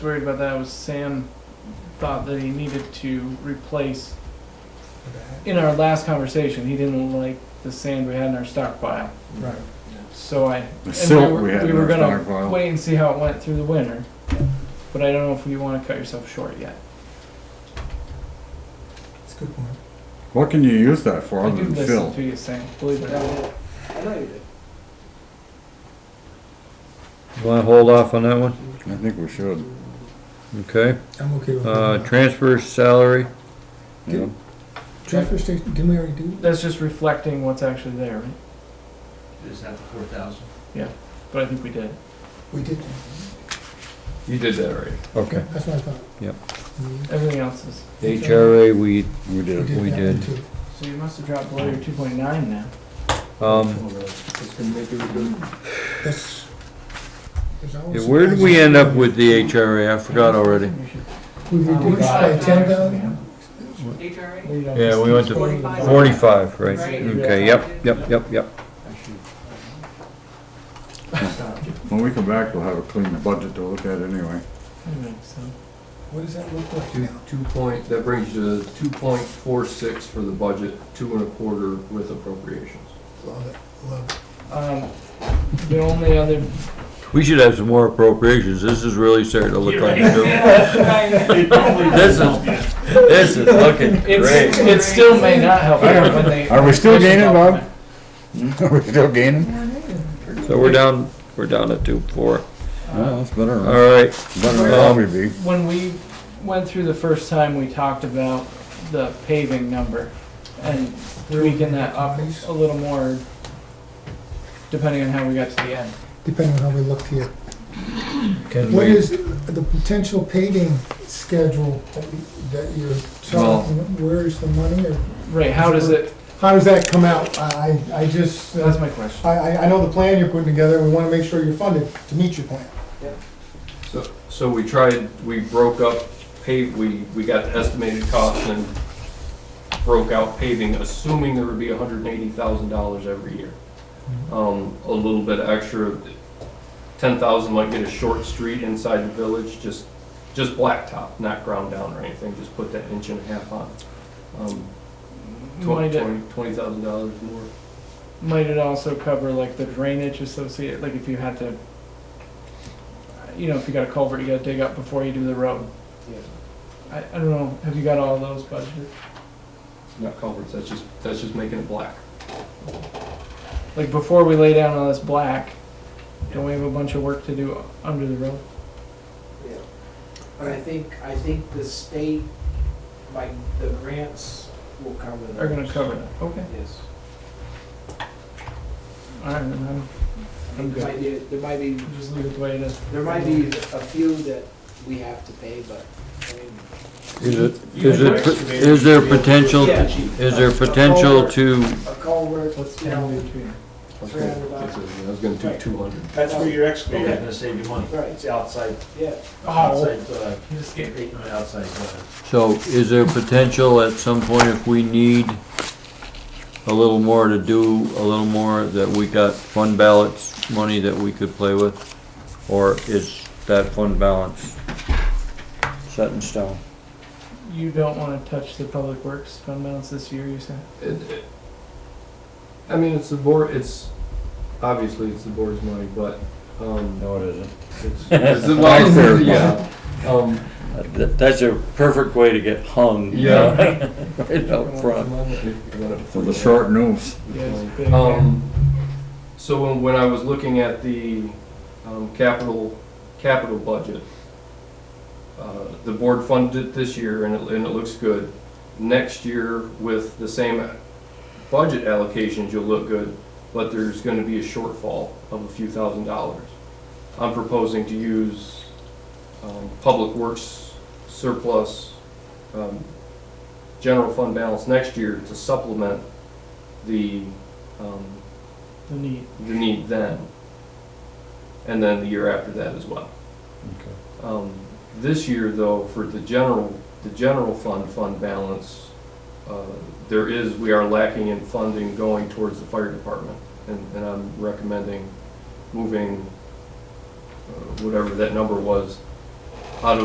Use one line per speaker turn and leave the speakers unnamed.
worried about that was Sam thought that he needed to replace. In our last conversation, he didn't like the sand we had in our stockpile,
Right.
so I.
The
and
silt
were-
we had in
were
our
gonna
stockpile.
Wait and see how it went through the winter, but I don't know if you wanna cut yourself short yet.
That's a good point.
What can you use that for
I
other
do
than
listen
fill?
to you, Sam, believe it or not.
I know you did.
You wanna hold off on that one?
I think we should.
Okay.
I'm okay with
Uh,
that.
transfer salary,
Yeah.
Transfer station, didn't we already do?
That's just reflecting what's actually there, right?
Is that the four thousand?
But I think we did.
We did.
You did that right.
okay.
That's what I thought.
Yep.
We-
Everything else is,
HRA, we,
We
We
did.
did
We
that
did.
too.
so you must have dropped below your two point nine now.
um,
It's gonna make it good.
That's. there's always
yeah, where did we
surprises.
end up with the HRA? I forgot already.
You should-
We
Oh
reduced by ten thousand?
HRA?
you don't-
Yeah, we went to
Forty-five.
forty-five, right?
Right.
Okay, yep, yep, yep, yep.
When we come back, we'll have a clean budget to look at anyway.
Anyway, so-
What does that look like
Two,
now?
two point, that brings you to two point four six for the budget, two and a quarter with appropriations.
Love it, love it.
Um, the only other.
We should have some more appropriations. This is really starting to look like a joke. This is, this is looking
It's,
great.
it still may not help out when they.
Are we still gaining, Bob? Are we still gaining?
So we're down, we're down at two, four.
No, that's better.
All right,
Better than probably be.
When we went through the first time, we talked about the paving number and tweaking that up a little more depending on how we got to the end.
Depending on how we looked here.
can
What
we,
is the potential paving schedule that we- that you're talking, where's the money or?
Right, how does it,
How does that come out? I, I I just. uh,
that's my question.
I, I, I know the plan you're putting together, and we wanna make sure you're funded to meet your plan.
So, so we tried, we broke up pave, we, we got the estimated cost and broke out paving, assuming there would be hundred and eighty thousand dollars every year. Um, a little bit extra, ten thousand might get a short street inside the village, just, just blacktop, not ground down or anything, just put that inch and a half on. Um,
Might
twenty,
it,
twenty, twenty thousand dollars more.
might it also cover like the drainage associated, like if you had to, you know, if you got a culvert you gotta dig up before you do the road? I, I don't know, have you got all those budgeted?
Not culverts, that's just, that's just making it black.
Like before we lay down all this black, don't we have a bunch of work to do under the road?
Yeah. But I think, I think the state, like, the grants will cover that.
Are gonna cover that, okay.
Yes.
Alright, then I'm, I'm good.
There might be, there might be,
We'll Just leave it the way it is.
there might be a few that we have to pay, but, I mean.
is it, is it, is there potential,
Yeah.
is there potential to
A culvert, you know,
That's
Three hundred bucks.
I was gonna do two hundred.
That's where your excavator is
Okay.
gonna save you money.
Right.
It's outside,
yeah.
Oh,
outside, uh,
you just gave me.
outside, uh,
So is there potential at some point if we need a little more to do, a little more, that we got fund balance money that we could play with? Or is that fund balance set in stone?
You don't wanna touch the public works fund balance this year, you said?
It- it- I mean, it's the board, it's, obviously, it's the board's money, but, um,
No, it isn't.
it's, it's, well, yeah, um,
That's a perfect way to get hung.
you know,
Right out front.
For the short news.
Yeah, it's big.
Um, so when, when I was looking at the, um, capital, capital budget, uh, the board funded it this year and it, and it looks good. Next year with the same budget allocations, you'll look good, but there's gonna be a shortfall of a few thousand dollars. I'm proposing to use, um, public works surplus, um, general fund balance next year to supplement the um,
The need.
the need then, and then the year after that as well. Um, This year, though, for the general, the general fund, fund balance, uh, there is, we are lacking in funding going towards the fire department, and and I'm recommending moving uh, whatever that number was